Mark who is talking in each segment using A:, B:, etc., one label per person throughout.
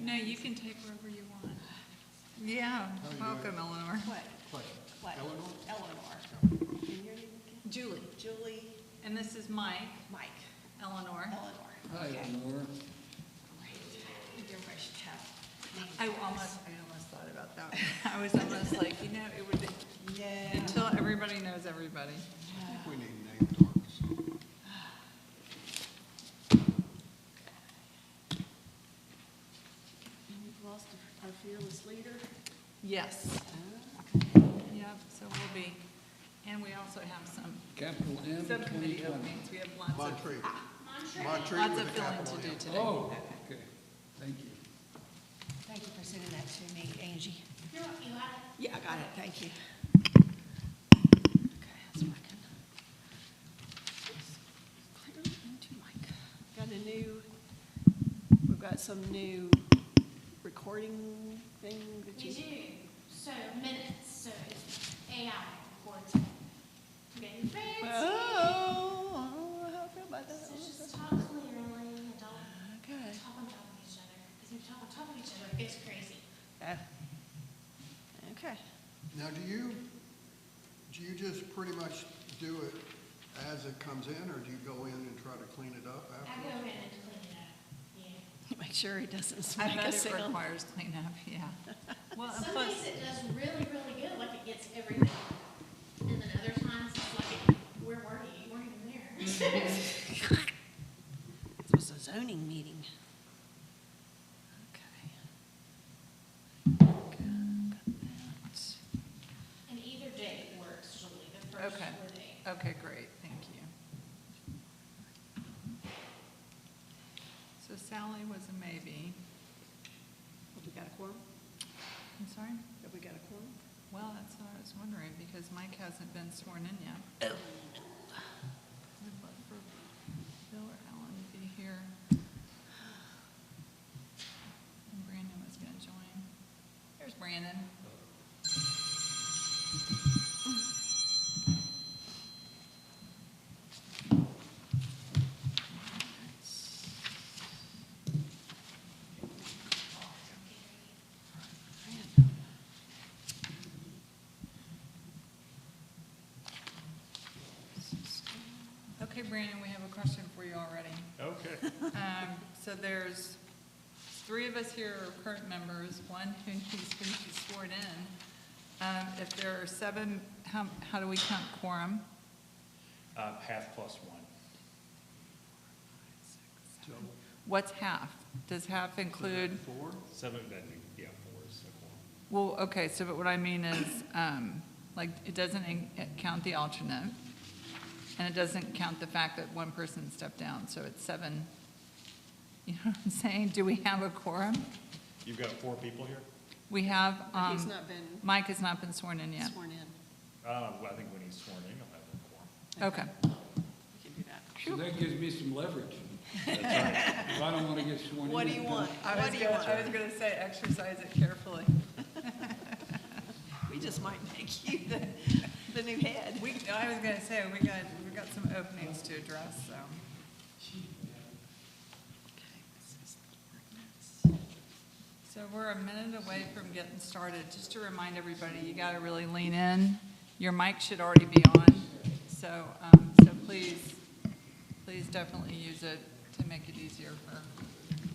A: No, you can take wherever you want.
B: Yeah,
C: How you
B: welcome
C: doing?
B: Eleanor.
D: Clay,
C: Clay.
D: Clay.
C: Eleanor?
D: Eleanor. And your name again?
A: Julie.
D: Julie,
A: And this is Mike,
D: Mike,
A: Eleanor.
D: Eleanor.
C: Hi,
D: Okay.
C: Eleanor.
D: Right. Everybody should have.
B: I almost, I almost thought about that. I was almost like, you know, it would,
D: Yeah.
B: until everybody knows everybody.
C: I think we need name tags.
D: And We've lost our fearless leader.
B: Yes,
D: Okay.
B: yep, so we'll be, and we also have some
E: Capital M
B: subcommittee
E: 2020.
B: openings. We have lots of,
C: Montreat.
B: lots
C: Montreat
B: of
C: with a
B: filling
C: capital
B: to do
C: M.
B: today.
E: Oh, okay, thank you.
D: Thank you for sending that to me, Angie. You got it? Yeah, I got it, thank you. Okay, that's working. Clear into mic. Got a new, we've got some new recording thing that
F: We
D: you.
F: do. So minutes, so AI records. it. Getting fancy.
D: Oh, I don't know how I feel about
F: So just
D: that.
F: talk clearly and don't
D: Okay.
F: talk on top of each other. Because if you talk on top of each other, it gets crazy.
D: Oh. Okay.
C: Now, do you, do you just pretty much do it as it comes in, or do you go in and try to clean it up
F: I
C: after?
F: go in and clean it up. Yeah.
D: Make sure it doesn't
B: I
D: make a
B: bet it
D: sound.
B: requires cleanup, yeah. Well, and
F: Some
B: plus,
F: days it does really, really good, like it gets everything. And then other times it's like, where were you? You weren't even there.
D: It was a zoning meeting. Okay.
F: And either day works usually, the first
B: Okay.
F: or day.
B: okay, great, thank you. So Sally was a maybe.
D: Have we got a quorum?
B: I'm sorry?
D: Have we got a quorum?
B: Well, that's what I was wondering, because Mike hasn't been sworn in yet. Would love for Bill or Alan to be here. And Brandon was gonna join. There's Brandon. Okay, Brandon, we have a question for you already.
G: Okay.
B: Um, so there's three of us here are current members, one who needs to be sworn in. Um, if there are seven, how, how do we count quorum?
G: Uh, half plus one.
B: What's half? Does half include,
C: Four?
G: Seven, that'd be, yeah, four is the quorum.
B: well, okay, so but what I mean is, um, like, it doesn't in- count the alternate, and it doesn't count the fact that one person stepped down, so it's seven. You know what I'm saying? Do we have a quorum?
G: You've got four people here?
B: We have,
D: But He's
B: um,
D: not been
B: Mike has not been sworn in yet.
D: sworn in.
G: Uh, well, I think when he's sworn in, you'll have a quorum.
B: Okay.
D: We can do that.
E: So that gives me some leverage. If I don't want to get sworn in.
D: What do you
E: then-
D: want?
B: I was
D: What do you
B: gonna, I was
D: want?
B: gonna say, exercise it carefully.
D: We just might make you the, the new head.
B: We, I was gonna say, we got, we got some openings to address, so. So we're a minute away from getting started. Just to remind everybody, you gotta really lean in. Your mic should already be on, so, um, so please, please definitely use it to make it easier for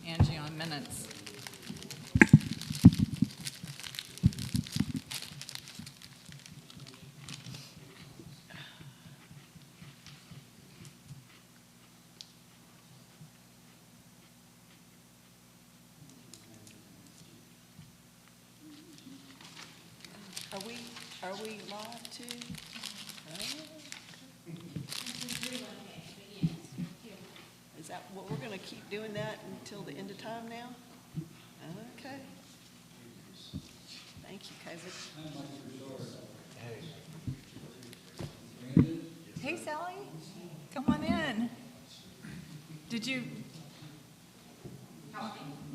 B: Angie on minutes.
D: Are we, are we live too? Oh,
F: This is relocate, but yes, here.
D: Is that, what, we're gonna keep doing that until the end of time now? Okay. Thank you, COVID.
B: Hey Sally, come on in. Did you?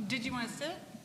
B: Did you want to sit?